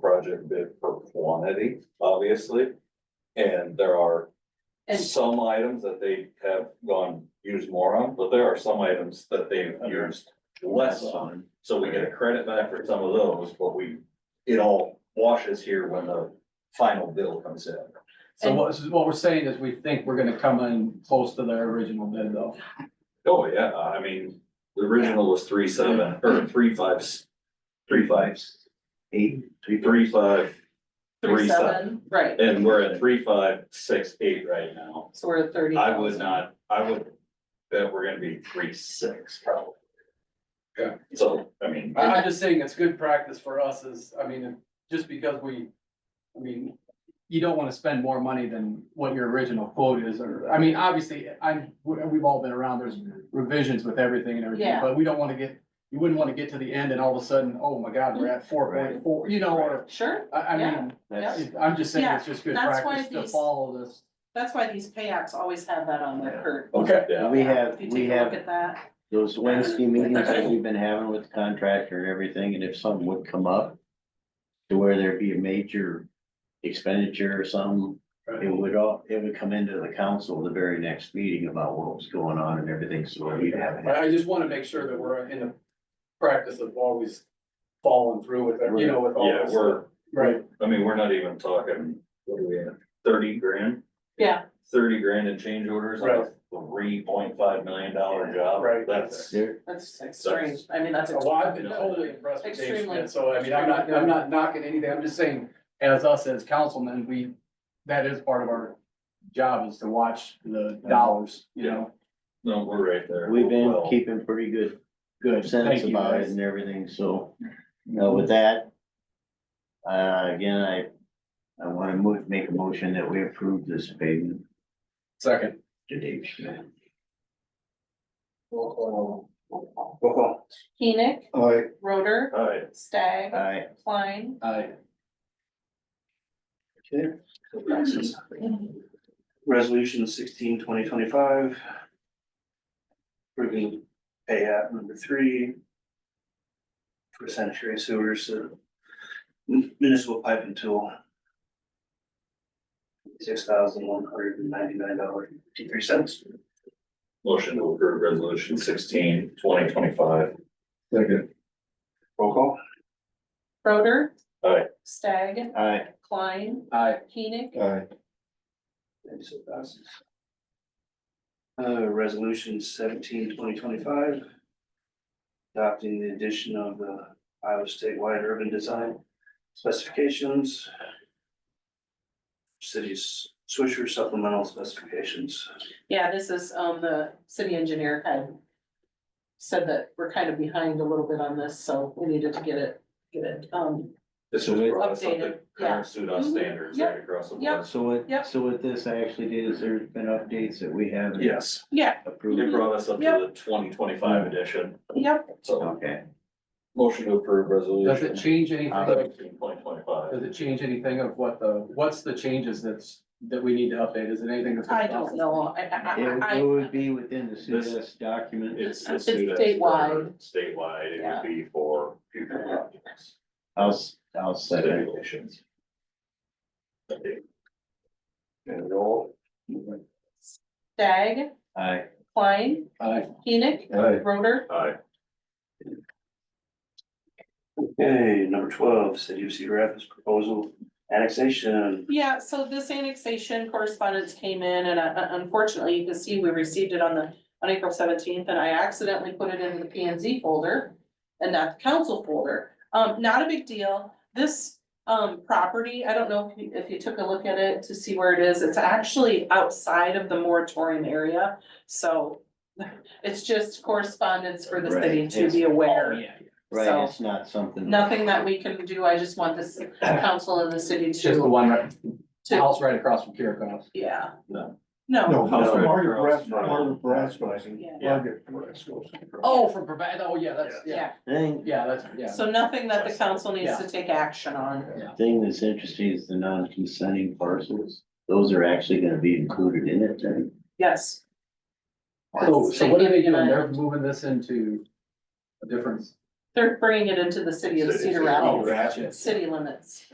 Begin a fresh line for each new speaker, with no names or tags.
project bid for quantity, obviously. And there are
And-
some items that they have gone, used more on, but there are some items that they've used less on. So we get a credit back for some of those, but we, it all washes here when the final bill comes in.
So what, so what we're saying is we think we're gonna come in close to their original bid though.
Oh, yeah, I mean, the original was three seven, or three fives, three fives,
Eight, three, three,
three five, three seven.
Right,
And we're at three five, six eight right now.
so we're at thirty.
I would not, I would bet we're gonna be three six probably.
Yeah.
So, I mean,
I, I'm just saying it's good practice for us is, I mean, if- just because we, I mean, you don't wanna spend more money than what your original quote is, or, I mean, obviously, I'm, we- we've all been around, there's revisions with everything and everything,
Yeah.
but we don't wanna get, you wouldn't wanna get to the end and all of a sudden, oh my god, we're
Mm-hmm.
at four point four, you know, or,
Sure,
I, I mean,
that's, uh,
I'm just saying it's just good
Yeah, that's why
practice to
these-
follow this.
that's why these pay apps always have that on their curve.
Okay.
yeah,
we have,
If you
we
take a look
have
at that,
those Wednesday meetings that we've been having with the contractor and everything, and if something would come up. To where there'd be a major expenditure or something, it would all, it would come into the council the very next meeting about what was going on and everything, so we'd have. it.
But I just wanna make sure that we're in the practice of always following through with, it, you know, with all
yeah,
this.
we're,
Right,
I mean, we're not even talking, what are we at, thirty grand?
Yeah.
Thirty grand in change orders on a three point five million dollar job.
Right.
That's,
There,
that's extreme, I mean,
Oh,
that's.
well, I've been
No.
totally impressed with Dave
Extremely.
Schmidt, so I mean, I'm not, I'm not knocking anything, I'm just saying, as us as councilmen, we, that is part of our job is to watch the dollars, you know?
no, we're right there.
We've been
Well,
keeping pretty good, good sense
Thank you,
about it
guys.
and everything, so, you know, with that. Uh, again, I, I wanna move, make a motion that we approve this payment
Second.
to Dave Schmidt.
Keenick, Roder,
All right,
Stag,
Uh,
Aye.
Klein.
I,
Resolution sixteen twenty twenty-five. Approving pay app number three. For sanitary sewers, uh, municipal pipe and tool. Six thousand one hundred and ninety-nine dollars fifty-three cents.
motion to approve resolution sixteen, twenty twenty-five.
second.
Roll call.
Roder.
Aye.
Stag,
Aye.
Klein,
I,
Keenick,
And so passes. Uh, resolution seventeen twenty twenty-five. Adopting the addition of the Iowa statewide urban design specifications. Cities Swisher supplemental specifications.
yeah, this is, um, the city engineer kind of said that we're kind of behind a little bit on this, so we needed to get it, get it, um,
This is brought us up to
Updated, yeah.
current SUDA standards
Mhm,
right across the
yep.
board.
So what,
Yep.
so what this actually did is there's been updates that we haven't
Yes.
yeah,
It
Mm-hmm.
approved.
brought us up to the twenty twenty-five edition,
yep,
so
Okay,
motion to approve
does it
resolution
change anything,
sixteen, Uh, twenty twenty-five.
does it change anything of what the, what's the changes that's, that we need to update, is it anything that's?
I don't know, I, I,
it would,
I- I,
it would be within the CDS document.
It's the
It's
SUDA.
statewide.
Statewide, it
Yeah.
would be for future projects,
I'll, s- I'll second.
stipulations. Okay,
And roll.
Stag,
Aye.
Klein,
I,
Keenick, Roder,
aye.
Okay, number twelve, city of Cedar Rapids proposal annexation.
Yeah, so this annexation correspondence came in and uh, unfortunately, you can see we received it on the, on April seventeenth and I accidentally put it in the P and Z folder and not the council folder. Um, not a big deal. This, um, property, I don't know if you, if you took a look at it to see where it is. It's actually outside of the moratorium area. So it's just correspondence for the city
Right,
to
it's-
be aware.
Oh, yeah,
So-
Right, it's not something.
Nothing that we can do. I just want this council and the city
it's just the
to,
one right,
to,
house right across from Kirikos.
yeah.
No.
No,
No,
House right
Margaret
across
Brass,
from-
Margaret Brass,
Yeah.
Margaret Brass.
Oh, from, Brevard- oh, yeah, that's, yeah,
Yeah,
Thing,
yeah, that's, yeah.
so nothing that the council needs to take action on.
thing that's interesting is the non-consenting parcels. Those are actually gonna be included in it then.
Yes,
So, so what are they doing?
Significant.
They're moving this into a different.
they're bringing it into the city of Cedar Rapids,
Oh, ratchet.
city limits.